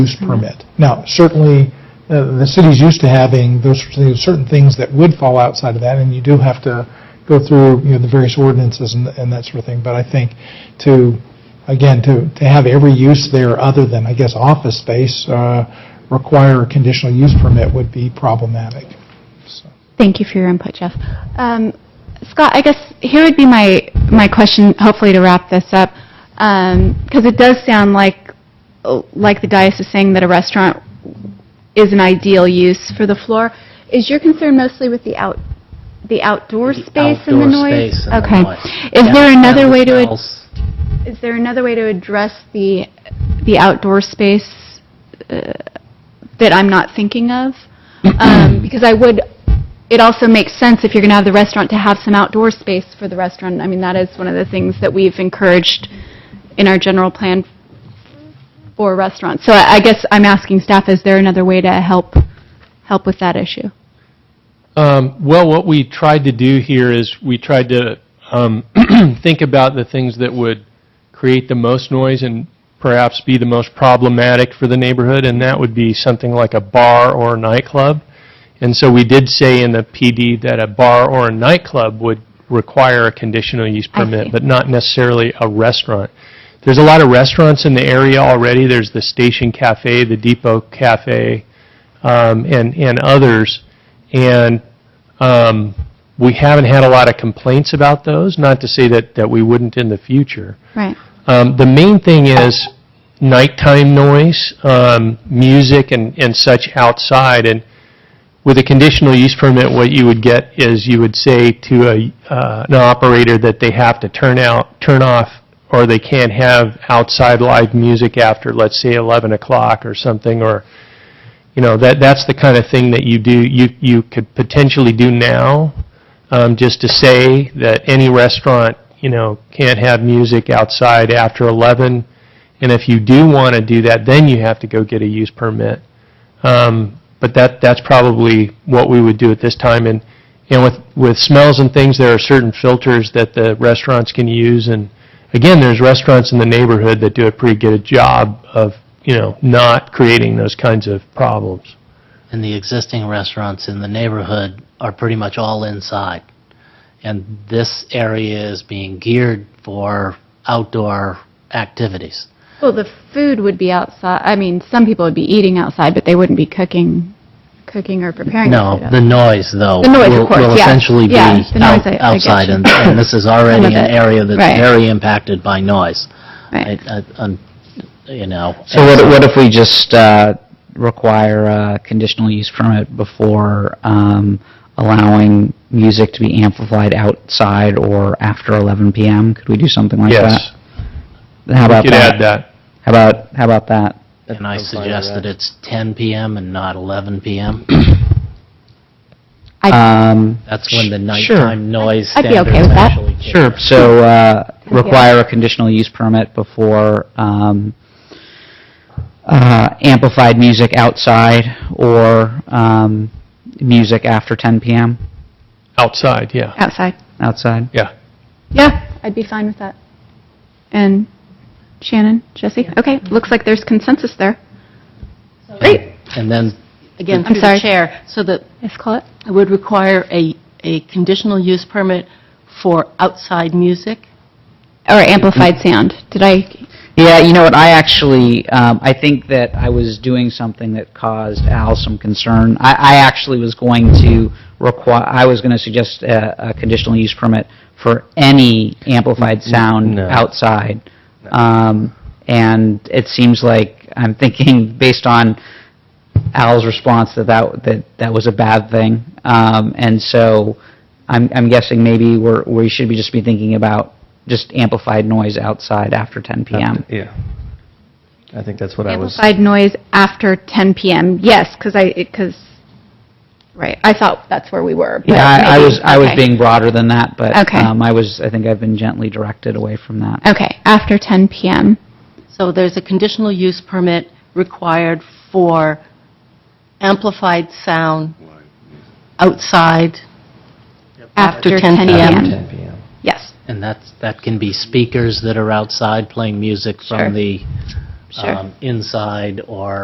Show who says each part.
Speaker 1: use permit. Now, certainly, uh, the city's used to having those, there's certain things that would fall outside of that, and you do have to go through, you know, the various ordinances and, and that sort of thing, but I think to, again, to, to have every use there other than, I guess, office space, uh, require a conditional use permit would be problematic. So,
Speaker 2: Thank you for your input, Jeff. Um, Scott, I guess here would be my, my question, hopefully to wrap this up, because it does sound like, like the dais is saying that a restaurant is an ideal use for the floor. Is your concern mostly with the out, the outdoor space and the
Speaker 3: Outdoor space
Speaker 2: noise?
Speaker 3: and the noise.
Speaker 2: Okay. Is there
Speaker 3: Yeah,
Speaker 2: another
Speaker 3: and
Speaker 2: way to, ad-
Speaker 3: smells.
Speaker 2: is there another way to address the, the outdoor space uh, that I'm not thinking of? Um, Because I would, it also makes sense if you're going to have the restaurant to have some outdoor space for the restaurant. I mean, that is one of the things that we've encouraged in our general plan for restaurants. So I I guess I'm asking staff, is there another way to help, help with that issue?
Speaker 4: Um, Well, what we tried to do here is we tried to um, think about the things that would create the most noise and perhaps be the most problematic for the neighborhood, and that would be something like a bar or a nightclub. And so we did say in the PD that a bar or a nightclub would require a conditional use
Speaker 2: I
Speaker 4: permit,
Speaker 2: see.
Speaker 4: but not necessarily a restaurant. There's a lot of restaurants in the area already. There's the Station Cafe, the Depot Cafe, um, and, and others. And um, we haven't had a lot of complaints about those, not to say that, that we wouldn't in the future.
Speaker 2: Right.
Speaker 4: Um, The main thing is nighttime noise, um, music and and such outside, and with a conditional use permit, what you would get is you would say to a, uh, an operator that they have to turn out, turn off, or they can't have outside live music after, let's say, 11 o'clock or something, or, you know, that, that's the kind of thing that you do, you, you could potentially do now, um, just to say that any restaurant, you know, can't have music outside after 11, and if you do want to do that, then you have to go get a use permit. Um, But that, that's probably what we would do at this time, and, and with, with smells and things, there are certain filters that the restaurants can use, and again, there's restaurants in the neighborhood that do a pretty good job of, you know, not creating those kinds of problems.
Speaker 3: And the existing restaurants in the neighborhood are pretty much all inside. And this area is being geared for outdoor activities.
Speaker 2: Well, the food would be outside, I mean, some people would be eating outside, but they wouldn't be cooking, cooking or preparing.
Speaker 3: No,
Speaker 2: food
Speaker 3: the noise, though.
Speaker 2: The noise, of
Speaker 3: will-
Speaker 2: course,
Speaker 3: Will
Speaker 2: yeah.
Speaker 3: essentially be
Speaker 2: Yeah, the noise,
Speaker 3: out-
Speaker 2: I- I get
Speaker 3: outside,
Speaker 2: you.
Speaker 3: and and this is already
Speaker 2: Some
Speaker 3: an
Speaker 2: of it,
Speaker 3: area that's
Speaker 2: right.
Speaker 3: very impacted by noise.
Speaker 2: outside. Right.
Speaker 3: I- I- um, You know.
Speaker 5: So what, what if we just uh, require a conditional use permit before um, allowing music to be amplified outside or after 11 PM? Could we do something like
Speaker 4: Yes,
Speaker 5: that? How about
Speaker 4: could add
Speaker 5: that?
Speaker 4: that.
Speaker 5: How about, how about that?
Speaker 3: And I suggest that it's 10 PM and not 11 PM.
Speaker 5: Um,
Speaker 3: That's when the
Speaker 5: Sure.
Speaker 3: nighttime noise
Speaker 2: I'd be okay
Speaker 3: standards
Speaker 2: with that.
Speaker 3: actually kick
Speaker 5: Sure, so uh, require a conditional use permit before um, uh, amplified music outside or um, music after 10 PM
Speaker 4: Outside, yeah.
Speaker 2: Outside.
Speaker 5: outside?
Speaker 2: Yeah, I'd be fine with that. And Shannon, Jesse? Okay, looks like there's consensus there. Great.
Speaker 3: And then
Speaker 6: Again,
Speaker 2: I'm
Speaker 6: through
Speaker 2: sorry.
Speaker 6: the chair, so that
Speaker 2: Yes, call it.
Speaker 6: it would require a, a conditional use permit for outside music.
Speaker 2: Or amplified
Speaker 5: Mm-hmm.
Speaker 2: sound. Did I,
Speaker 5: Yeah, you know what, I actually, um, I think that I was doing something that caused Al some concern. I, I actually was going to require, I was going to suggest a, a conditional use permit for any amplified sound
Speaker 4: No.
Speaker 5: outside. Um, and it seems like, I'm thinking, based on Al's response, that that, that, that was a bad thing. Um, and so, I'm, I'm guessing maybe we're, we should be just be thinking about just amplified noise outside after 10 PM.
Speaker 7: Yeah. I think that's what I was,
Speaker 2: amplified noise after 10 PM? Yes, because I, because, right, I thought that's where we were. but
Speaker 5: Yeah, I I
Speaker 2: maybe-
Speaker 5: was, I was
Speaker 2: okay.
Speaker 5: being broader than that, but
Speaker 2: Okay.
Speaker 5: um, I was, I think I've been gently directed away from that.
Speaker 2: Okay, after 10 PM.
Speaker 6: So there's a conditional use permit required for amplified sound outside after 10 PM.
Speaker 7: 10 PM.
Speaker 2: Yes,
Speaker 3: And that's, that can be speakers that are outside playing music
Speaker 2: Sure.
Speaker 3: from the
Speaker 2: Sure.
Speaker 3: um, inside or